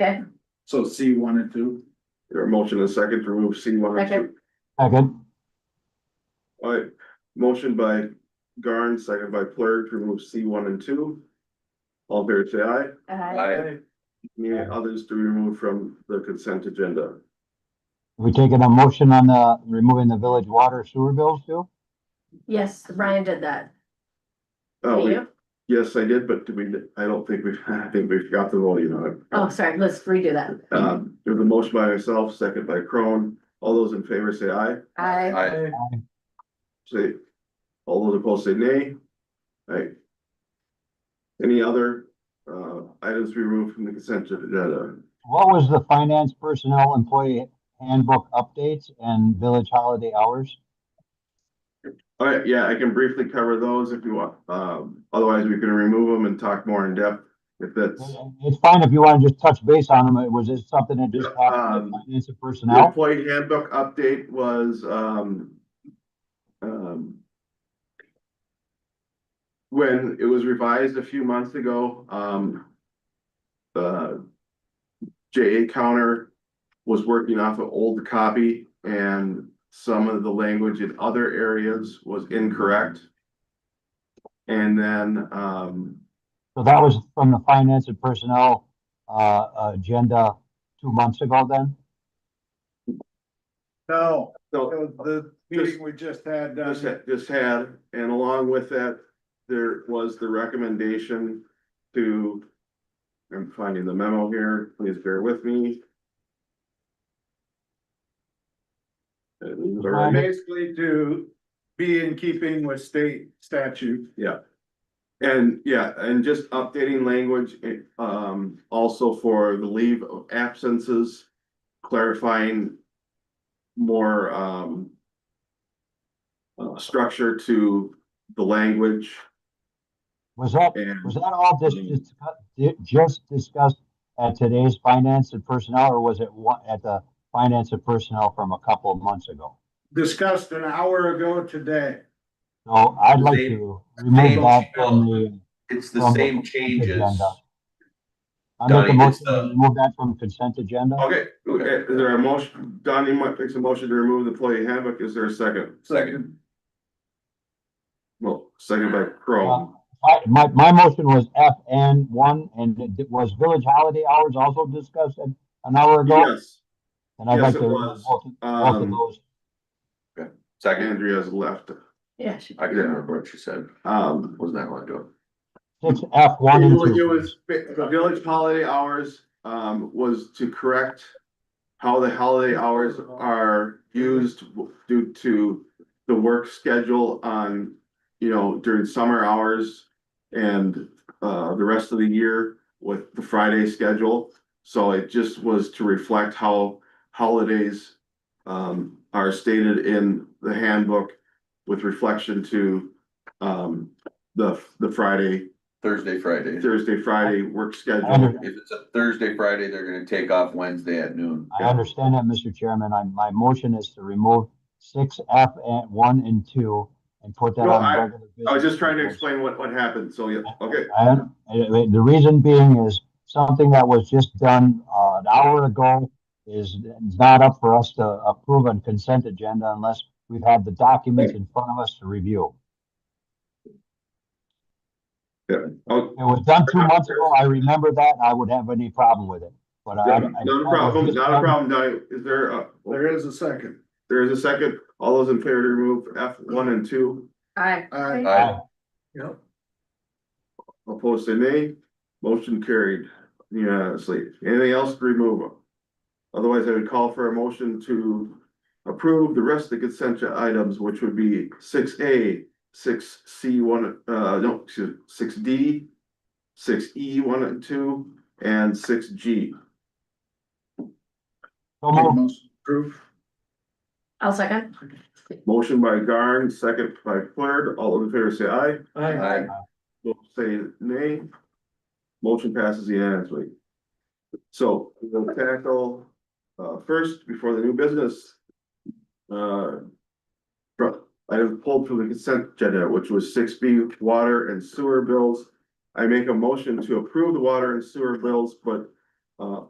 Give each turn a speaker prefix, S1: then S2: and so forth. S1: Okay,
S2: So C one and two?
S3: There a motion and a second to remove C one and two.
S1: Second.
S4: Second,
S3: All right, motion by Garn, second by Plur to remove C one and two. All in favor, say aye.
S1: uh,
S3: Any others to remove from the consent agenda?
S4: we taking a motion on the, removing the village water sewer bills too?
S1: yes, Ryan did that.
S3: Oh, wait,
S1: You?
S3: yes, I did, but did we, I don't think we, I think we forgot the voting on it.
S1: Oh, sorry, let's redo that.
S3: Um, there's a motion by myself, second by Crone. All those in favor say aye.
S1: I,
S5: Aye.
S3: Say, all those opposed say nay. Aye. Any other, uh, items removed from the consent agenda?
S4: What was the finance personnel employee handbook updates and village holiday hours?
S3: All right, yeah, I can briefly cover those if you want. Um, otherwise we can remove them and talk more in depth if that's.
S4: It's fine if you want to just touch base on them. Was it something that just happened
S3: Um,
S4: with finance and
S3: The
S4: personnel?
S3: employee handbook update was, um, um, when it was revised a few months ago, um, the JA counter was working off an old copy and some of the language in other areas was incorrect. And then, um,
S4: So that was from the finance and personnel, uh, agenda two months ago then?
S2: No,
S3: so
S2: it was the meeting we just had,
S3: just
S2: uh,
S3: had, just had, and along with that, there was the recommendation to. I'm finding the memo here, please bear with me. And
S2: basically to be in keeping with state statute.
S3: yeah, and just updating language, eh, um, also for the leave of absences, clarifying. More, um. Uh, structure to the language
S4: Was that,
S3: and.
S4: was that all just, just- just discussed at today's finance and personnel or was it one, at the finance and personnel from a couple of months ago?
S2: Discussed an hour ago today.
S4: So I'd like
S5: Same-
S4: to remove
S5: same
S4: that
S5: people.
S4: from the.
S5: It's the
S4: from the
S5: same
S4: consent
S5: changes.
S4: agenda. I make a
S5: Donnie, it's
S4: motion to
S3: uh,
S5: the-
S4: remove that from consent agenda.
S3: Okay, okay, is there a motion, Donnie might makes a motion to remove the employee handbook, is there a second?
S5: Second.
S3: Well, second by Chrome,
S4: I- My, my motion was F and one, and it d- was village holiday hours also discussed an an hour ago?
S3: yes,
S4: And I'd
S3: yes,
S4: like
S3: it
S4: to remove
S3: was.
S4: both of- both of
S3: um,
S4: those.
S5: Second,
S3: Andrea's left,
S1: yeah, she-
S5: I can remember what she said,
S3: um.
S5: wasn't that one doing?
S4: Six F, one
S3: It
S4: and
S3: was- it
S4: two.
S3: was, the village holiday hours, um, was to correct how the holiday hours are used due to the work schedule on, you know, during summer hours and, uh, the rest of the year with the Friday schedule. So it just was to reflect how holidays, um, are stated in the handbook with reflection to, um, the, the Friday
S5: Thursday, Friday.
S3: Thursday, Friday work
S4: I
S3: schedule.
S4: under-
S5: If it's a Thursday, Friday, they're gonna take off Wednesday at noon.
S4: I understand that, Mr. Chairman. I, my motion is to remove six F and one and two and put that
S3: No,
S4: on
S3: I- I
S4: regular.
S3: was
S4: business
S3: just trying to
S4: proposal.
S3: explain what, what happened, so yeah, okay,
S4: I, I- the reason being is something that was just done, uh, an hour ago is not up for us to approve on consent agenda unless we've had the documents in front of us to review.
S3: oh,
S4: It was done two months ago. I remember that. I would have any problem with it, but I. I-
S3: not a problem, not a problem, Donnie, is there a,
S2: There is a second.
S3: there is a second, all those in favor to remove F one and two,
S1: I,
S2: Aye.
S5: I,
S2: Yep.
S3: opposed to nay, motion carried unanimously, anything else to remove? Otherwise, I would call for a motion to approve the rest of the consent items, which would be six A, six C one, uh, no, excuse, six D, six E one and two, and six G.
S4: So moved.
S2: Proof.
S1: I'll second.
S3: Motion by Garn, second by Flaherty, all in favor say aye,
S5: I,
S3: Those say nay. Motion passes unanimously. So we'll tackle, uh, first, before the new business. Uh. from- I have pulled from the consent agenda, which was six B, water and sewer bills. I make a motion to approve the water and sewer bills, but, uh,